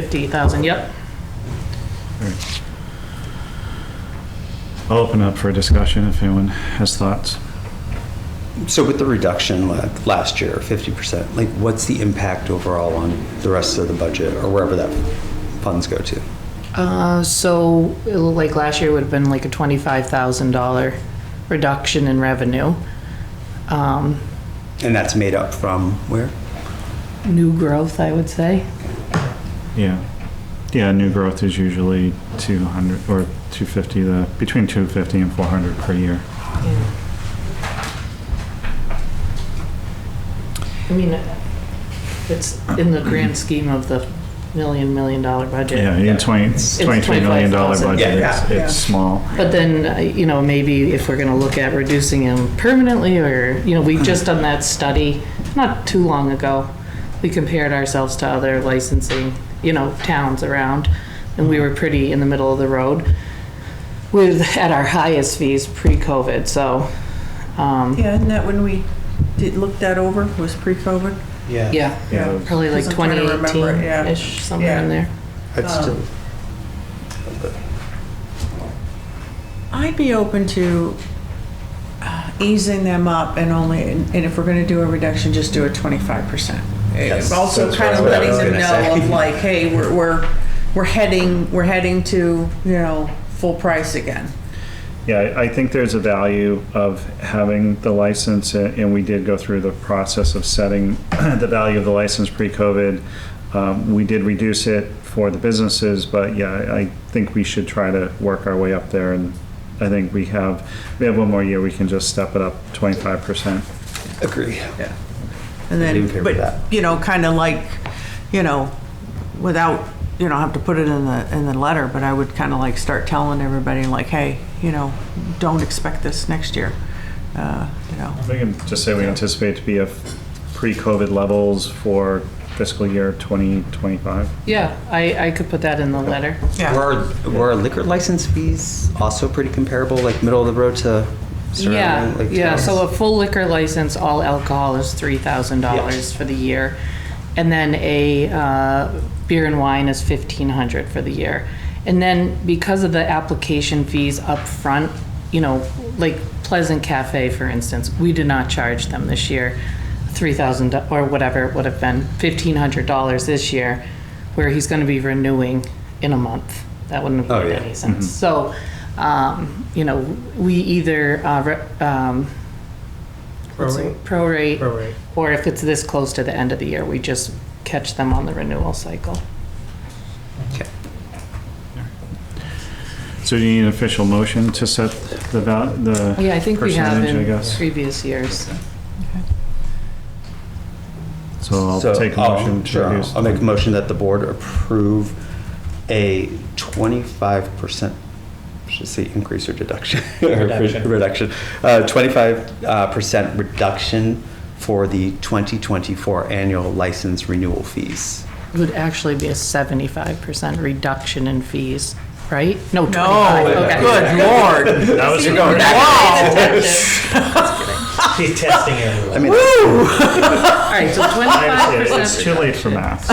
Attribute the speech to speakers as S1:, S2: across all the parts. S1: 50,000, yep.
S2: I'll open up for a discussion if anyone has thoughts.
S3: So with the reduction la- last year, 50%, like what's the impact overall on the rest of the budget or wherever that funds go to?
S1: Uh, So, it looked like last year would have been like a $25,000 reduction in revenue. Um,
S3: And that's made up from where?
S1: New growth, I would say.
S2: Yeah. Yeah, new growth is usually 200 or 250, the, between 250 and 400 per year.
S1: I mean, it's in the grand scheme of the million, million dollar budget.
S2: Yeah, in 20, $23 million dollar
S1: 25,000.
S2: budget,
S3: Yeah,
S2: it's,
S3: yeah.
S2: it's small.
S1: But then, uh, you know, maybe if we're gonna look at reducing them permanently, or, you know, we've just done that study not too long ago. We compared ourselves to other licensing, you know, towns around, and we were pretty in the middle of the road with, at our highest fees pre-COVID, so, um,
S4: Yeah, isn't that when we did, look that over, was pre-COVID?
S1: yeah,
S2: Yeah.
S1: probably like
S4: Because I'm trying to remember, yeah.
S1: 2018-ish, somewhere in
S4: Yeah.
S1: there.
S3: I'd still,
S4: I'd be open to uh, easing them up and only, and if we're gonna do a reduction, just do a twenty-five percent.
S3: That's-
S4: Also
S3: that's
S4: kind of
S3: what I
S4: letting
S3: was
S4: them
S3: gonna
S4: know
S3: say.
S4: of like, hey, we're, we're, we're heading, we're heading to, you know, full price again.
S2: Yeah, I- I think there's a value of having the license, a- and we did go through the process of setting the value of the license pre-COVID. Um, We did reduce it for the businesses, but yeah, I I think we should try to work our way up there, and I think we have, we have one more year, we can just step it up 25%.
S3: agree.
S4: Yeah. And
S3: I'd be in favor
S4: then,
S3: of that.
S4: but, you know, kind of like, you know, without, you don't have to put it in the, in the letter, but I would kind of like start telling everybody like, hey, you know, don't expect this next year, uh, you know.
S2: We can just say we anticipate to be at pre-COVID levels for fiscal year 2025.
S1: Yeah, I, I could put that in the letter.
S3: Were, were liquor license fees also pretty comparable, like middle of the road to surrounding?
S1: Yeah,
S3: like,
S1: yeah, so a
S3: towns?
S1: full liquor license, all alcohol is three thousand dollars
S3: Yes.
S1: for the year. And then a, uh, beer and wine is fifteen hundred for the year. And then because of the application fees up front, you know, like Pleasant Cafe, for instance, we did not charge them this year. Three thousand, or whatever it would have been, fifteen hundred dollars this year, where he's gonna be renewing in a month. That wouldn't have
S3: Oh,
S1: made
S3: yeah.
S1: any sense. So, um, you know, we either, uh, re- um, what's the- prorate.
S5: Prorate.
S1: Or if it's this close to the end of the year, we just catch them on the renewal cycle.
S3: Okay.
S2: So do you need an official motion to set the val, the
S1: Yeah, I think we have
S2: percentage, I
S1: in
S2: guess?
S1: previous years.
S2: So I'll
S3: So,
S2: take a
S3: oh,
S2: motion to
S3: sure, I'll-
S2: reduce.
S3: I'll make a motion that the board approve a twenty-five percent, should say increase or deduction.
S5: Reduction.
S3: Reduction, uh, twenty-five, uh, percent reduction for the twenty twenty-four annual license renewal fees.
S1: It would actually be a seventy-five percent reduction in fees, right? No,
S4: No,
S1: twenty-five, okay.
S4: good lord.
S2: That was your
S4: Wow.
S5: She's testing everyone.
S3: I mean,
S1: All right, so twenty-five
S2: It's
S1: percent.
S2: too late for math.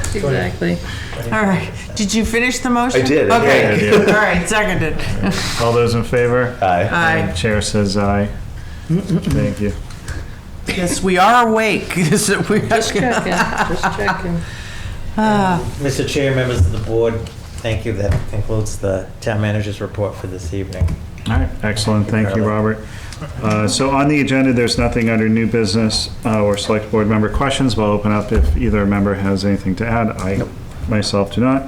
S1: Exactly.
S4: All right, did you finish the motion?
S3: I did, yeah,
S4: Okay,
S2: I
S4: all
S2: did.
S4: right, seconded.
S2: All those in favor?
S3: aye.
S4: Aye.
S2: Chair says aye. Thank you.
S4: Yes, we are awake. Yes, we are-
S1: Just checking, just checking.
S5: Mr. Chair, members of the board, thank you. That concludes the town manager's report for this evening.
S2: All right, excellent, thank you, Robert. Uh, So on the agenda, there's nothing under new business uh, or select board member questions. We'll open up if either member has anything to add. I myself do not.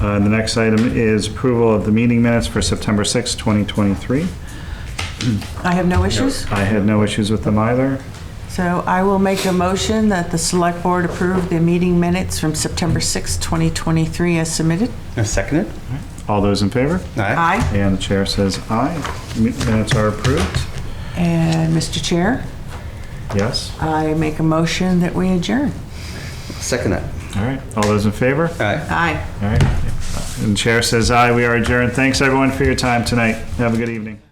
S2: Uh, The next item is approval of the meeting minutes for September 6, 2023.
S4: I have no issues,
S2: I had no issues with them either.
S4: so I will make a motion that the select board approve the meeting minutes from September 6, 2023 as submitted.
S3: Seconded?
S2: All those in favor?
S3: Aye.
S4: Aye.
S2: And the chair says aye. Mi- Minutes are approved.
S4: And Mr. Chair,
S2: Yes.
S4: I make a motion that we adjourn.
S3: Second that.
S2: All right. All those in favor?
S3: Aye.
S4: Aye.
S2: All right. And chair says aye. We are adjourned. Thanks, everyone, for your time tonight. Have a good evening.